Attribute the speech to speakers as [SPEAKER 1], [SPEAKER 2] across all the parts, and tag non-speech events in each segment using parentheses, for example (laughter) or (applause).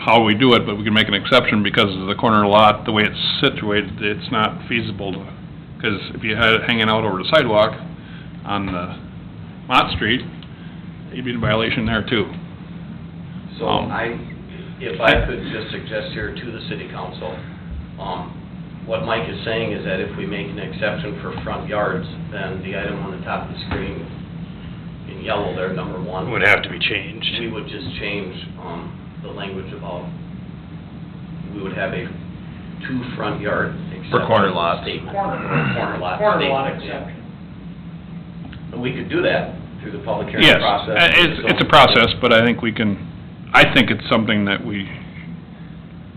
[SPEAKER 1] how we do it, but we can make an exception because of the corner lot, the way it's situated, it's not feasible to, because if you had it hanging out over the sidewalk on the Mott Street, you'd be in violation there too.
[SPEAKER 2] So
[SPEAKER 1] Um,
[SPEAKER 2] I, if I could just suggest here to the city council, um, what Mike is saying is that if we make an exception for front yards, then the item on the top of the screen in yellow there, number one.
[SPEAKER 3] Would have to be changed.
[SPEAKER 2] We would just change, um, the language about, we would have a two front yard exception.
[SPEAKER 1] For corner lots.
[SPEAKER 2] statement.
[SPEAKER 4] Corner.
[SPEAKER 2] Corner lot.
[SPEAKER 4] Corner lot
[SPEAKER 2] statement, yeah.
[SPEAKER 4] exception.
[SPEAKER 2] And we could do that through the public hearing
[SPEAKER 1] Yes,
[SPEAKER 2] process.
[SPEAKER 1] uh, it's, it's a process, but I think we can, I think it's something that we,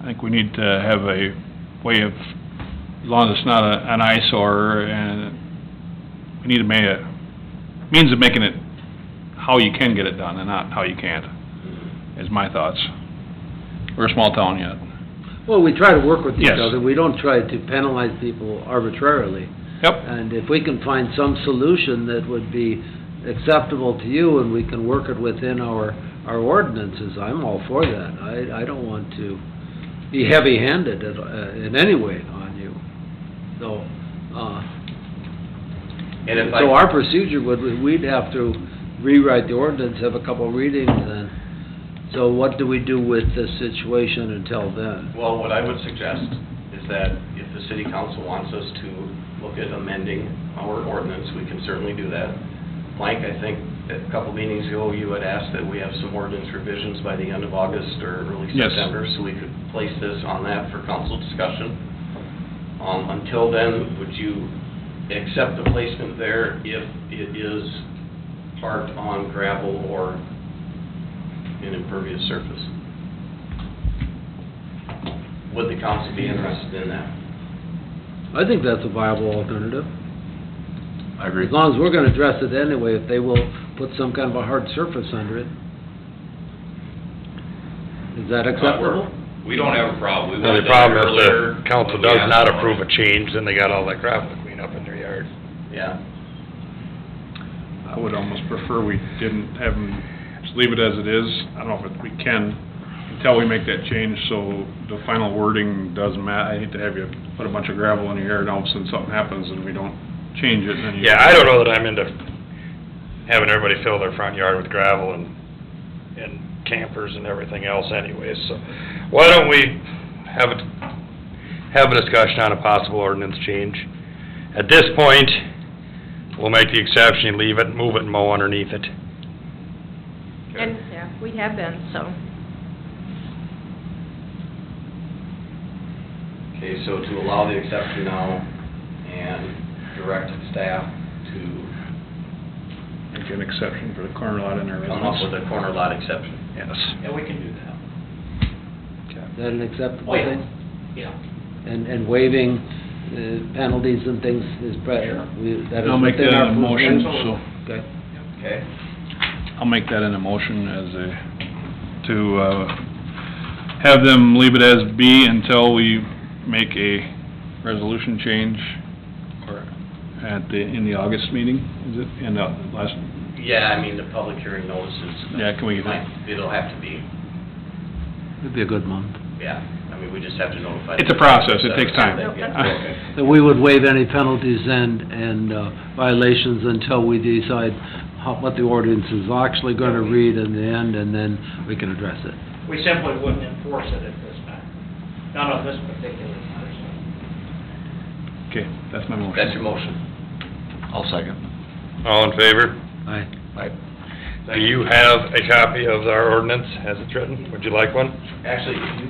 [SPEAKER 1] I think we need to have a way of, as long as it's not a- an eyesore, and we need to make a, means of making it how you can get it done and not how you can't, is my thoughts. We're a small town yet.
[SPEAKER 5] Well, we try to work with each
[SPEAKER 1] Yes.
[SPEAKER 5] other. We don't try to penalize people arbitrarily.
[SPEAKER 1] Yep,
[SPEAKER 5] And if we can find some solution that would be acceptable to you and we can work it within our, our ordinances, I'm all for that. I, I don't want to be heavy-handed at, uh, in any way on you. So, uh,
[SPEAKER 2] And if I.
[SPEAKER 5] so our procedure would, we'd have to rewrite the ordinance, have a couple readings and, so what do we do with this situation until then?
[SPEAKER 2] Well, what I would suggest is that if the city council wants us to look at amending our ordinance, we can certainly do that. Mike, I think that a couple meetings ago, you had asked that we have some ordinance revisions by the end of August or early
[SPEAKER 1] Yes.
[SPEAKER 2] September, so we could place this on that for council discussion. Um, until then, would you accept the placement there if it is parked on gravel or an impervious surface? Would the council be interested in that?
[SPEAKER 5] I think that's a viable alternative.
[SPEAKER 6] I agree.
[SPEAKER 5] As long as we're gonna address it anyway, if they will put some kind of a hard surface under it. Is that acceptable?
[SPEAKER 7] We don't have a problem. We
[SPEAKER 3] Now,
[SPEAKER 7] wanted
[SPEAKER 3] the
[SPEAKER 7] it
[SPEAKER 3] problem is
[SPEAKER 7] earlier
[SPEAKER 3] the council
[SPEAKER 7] when we
[SPEAKER 3] does
[SPEAKER 7] asked
[SPEAKER 3] not
[SPEAKER 7] about
[SPEAKER 3] approve
[SPEAKER 7] it.
[SPEAKER 3] a change, then they got all that gravel to clean up in their yard.
[SPEAKER 2] Yeah.
[SPEAKER 1] I would almost prefer we didn't have them, just leave it as it is. I don't know if it- we can, until we make that change, so the final wording doesn't matter. I hate to have you put a bunch of gravel in your yard, and all of a sudden something happens and we don't change it, and then you...
[SPEAKER 3] Yeah, I don't know that I'm into having everybody fill their front yard with gravel and, and campers and everything else anyways, so. Why don't we have a, have a discussion on a possible ordinance change? At this point, we'll make the exception, leave it, move it and mow underneath it.
[SPEAKER 8] And, yeah, we have been, so.
[SPEAKER 2] Okay, so to allow the exception now and direct staff to
[SPEAKER 1] Make an exception for the corner lot in our
[SPEAKER 2] come up with
[SPEAKER 1] residence.
[SPEAKER 2] a corner lot exception.
[SPEAKER 3] Yes.
[SPEAKER 4] Yeah, we can do that.
[SPEAKER 5] Is that an acceptable
[SPEAKER 4] Oh, yeah.
[SPEAKER 5] thing?
[SPEAKER 4] Yeah.
[SPEAKER 5] And, and waiving uh, penalties and things is
[SPEAKER 4] Sure.
[SPEAKER 5] better. That is
[SPEAKER 1] I'll make
[SPEAKER 5] within
[SPEAKER 1] that
[SPEAKER 5] our
[SPEAKER 1] a motion, so,
[SPEAKER 5] Okay.
[SPEAKER 2] Okay.
[SPEAKER 1] I'll make that in a motion as a, to, uh, have them leave it as B until we make a resolution change or at the, in the August meeting, is it? In the last,
[SPEAKER 2] Yeah, I mean, the public hearing notices.
[SPEAKER 1] Yeah, can we-
[SPEAKER 2] might- It'll have to be,
[SPEAKER 5] It'd be a good month.
[SPEAKER 2] yeah. I mean, we just have to notify.
[SPEAKER 1] It's a process. It takes time.
[SPEAKER 2] Yeah.
[SPEAKER 1] Nope.
[SPEAKER 2] Okay.
[SPEAKER 5] That we would waive any penalties and, and uh, violations until we decide how, what the ordinance is actually gonna read in the end, and then we can address it.
[SPEAKER 4] We simply wouldn't enforce it at this time. Not on this particular
[SPEAKER 1] (laughs)
[SPEAKER 4] person.
[SPEAKER 1] okay, that's my motion.
[SPEAKER 2] That's your motion.
[SPEAKER 6] I'll second.
[SPEAKER 3] All in favor?
[SPEAKER 5] Aye.
[SPEAKER 3] Do you have a copy of our ordinance as it's written? Would you like one?
[SPEAKER 2] Actually, if you,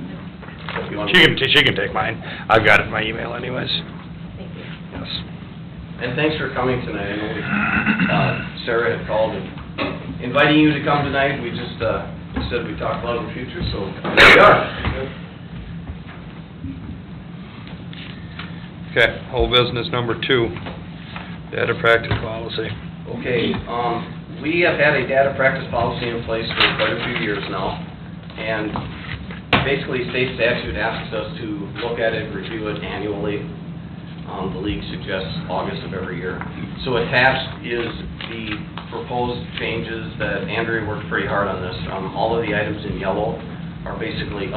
[SPEAKER 2] if you want
[SPEAKER 3] She can,
[SPEAKER 2] to.
[SPEAKER 3] she can take mine. I've got it in my email anyways.
[SPEAKER 8] Thank you.
[SPEAKER 3] Yes.
[SPEAKER 2] And thanks for coming tonight. I know we, uh, Sarah had called and inviting you to come tonight. We just, uh, said we talked about the future, so here we are.
[SPEAKER 3] Okay, whole business number two, data practice policy.
[SPEAKER 2] Okay, um, we have had a data practice policy in place for quite a few years now, and basically state statute asks us to look at it, review it annually. Um, the league suggests August of every year. So attached is the proposed changes that Andrea worked pretty hard on this. Um, all of the items in yellow are basically